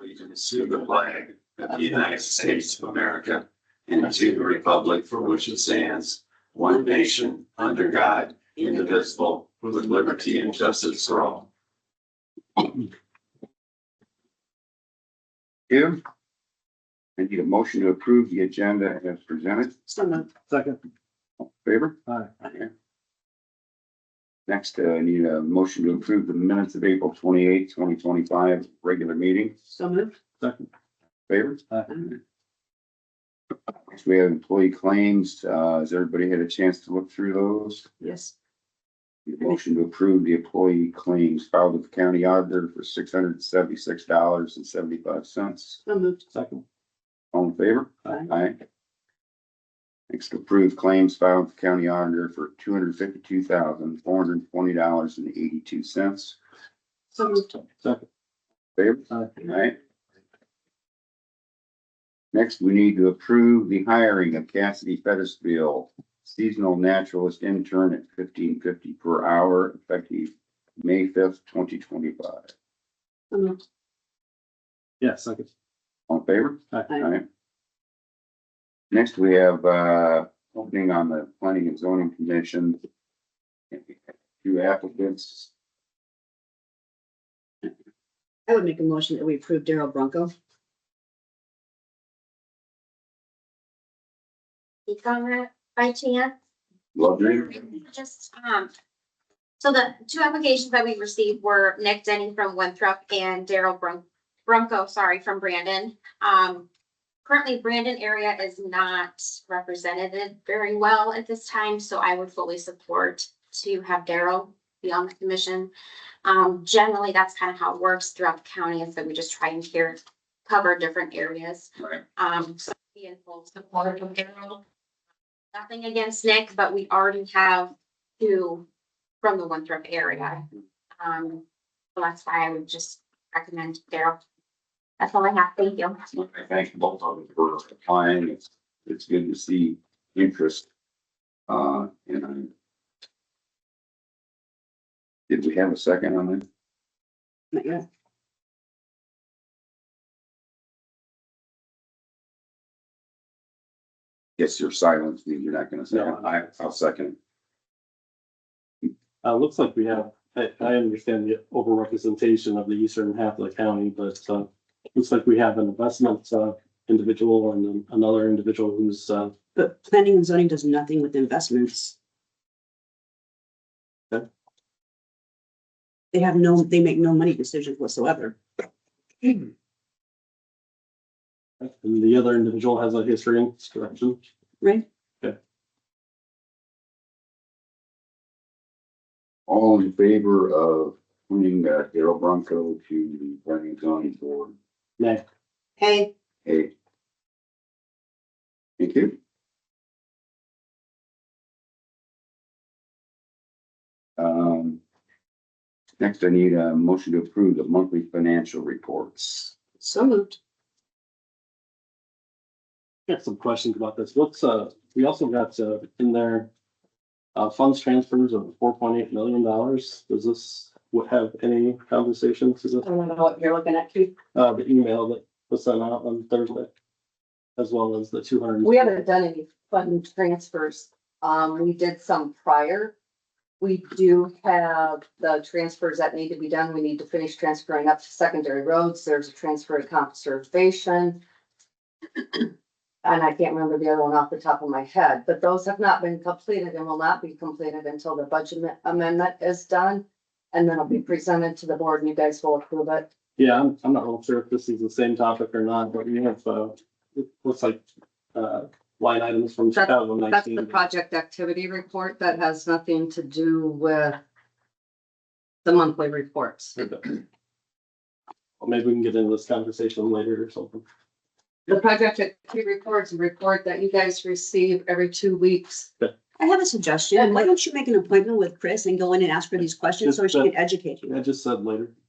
allegiance to the flag of the United States of America and to the republic for which it stands, one nation, under God, indivisible, with liberty and justice for all. Give. I need a motion to approve the agenda as presented. Second. Favor? Aye. Next, uh, I need a motion to approve the minutes of April twenty-eighth, twenty twenty-five, regular meeting. So moved. Second. Favor? Aye. Next, we have employee claims. Uh, has everybody had a chance to look through those? Yes. Need a Motion to approve the employee claims filed with the county auditor for six hundred and seventy-six dollars and seventy-five cents. So moved. Second. All in favor? Aye. Aye. Next, approve claims filed with the county auditor for two hundred fifty-two thousand, four hundred twenty dollars and eighty-two cents. So moved. Second. Favor? Aye. Alright. Next, we need to approve the hiring of Cassidy Fettisville, seasonal naturalist intern at fifteen fifty per hour, effective May fifth, twenty twenty-five. So moved. Yeah, second. All in favor? Aye. Aye. Alright. Next, we have, uh, opening on the planning and zoning commission. Two applicants. I would make a motion that we approve Daryl Bronco. speak on that by chance? Lovely. Just, um, so the two applications that we received were Nick Denny from Winthrop and Daryl Brun- Brunco, sorry, from Brandon. Um, currently Brandon area is not represented very well at this time, so I would fully support to have Daryl be on the commission. Um, generally, that's kind of how it works throughout the county is that we just try and here cover different areas. Right. Um, so be in full support of Daryl. Nothing against Nick, but we already have two from the Winthrop area. Um, so that's why I would just recommend Daryl. That's all I have. Thank you. I thank both of them for applying. It's, it's good to see interest. Uh, and I. Did we have a second on that? Not yet. Yes, your silence means you're not gonna say. No, I'm not. I, I'll second. Uh, looks like we have, I, I understand the overrepresentation of the eastern half of the county, but, uh, looks like we have an investment, uh, individual and then another individual who's, uh, But planning and zoning does nothing with investments. Okay. They have no, they make no money decisions whatsoever. and the other individual has a history in this direction. Right? All in favor of appointing uh, Daryl Bronco to the planning and zoning board? Nay, Hey, Hey. Thank you. Um. Next, I need a motion to approve the monthly financial reports. so moved. I have some questions about this. What's, uh, we also got, uh, in there, uh, funds transfers of four point eight million dollars. Does this, would have any conversation to this? don't know what you're looking at, Keith. uh, the email that was sent out on Thursday. As well as the two hundred. We haven't done any fund transfers. Um, we did some prior. We do have the transfers that need to be done. We need to finish transferring up to secondary roads. There's a transfer to conservation. And I can't remember the other one off the top of my head, but those have not been completed and will not be completed until the budget amendment is done. And then it'll be presented to the board and you guys will approve it. Yeah, I'm, I'm not real sure if this is the same topic or not, but we have, uh, it looks like, uh, line items from two That's- thousand That's the nineteen. project activity report that has nothing to do with the monthly reports. Maybe we can get into this conversation later or something. The project activity report is a report that you guys receive every two weeks. I have a suggestion. Why don't you make an appointment with Chris and go in and ask her these questions so she can educate you? I just said later.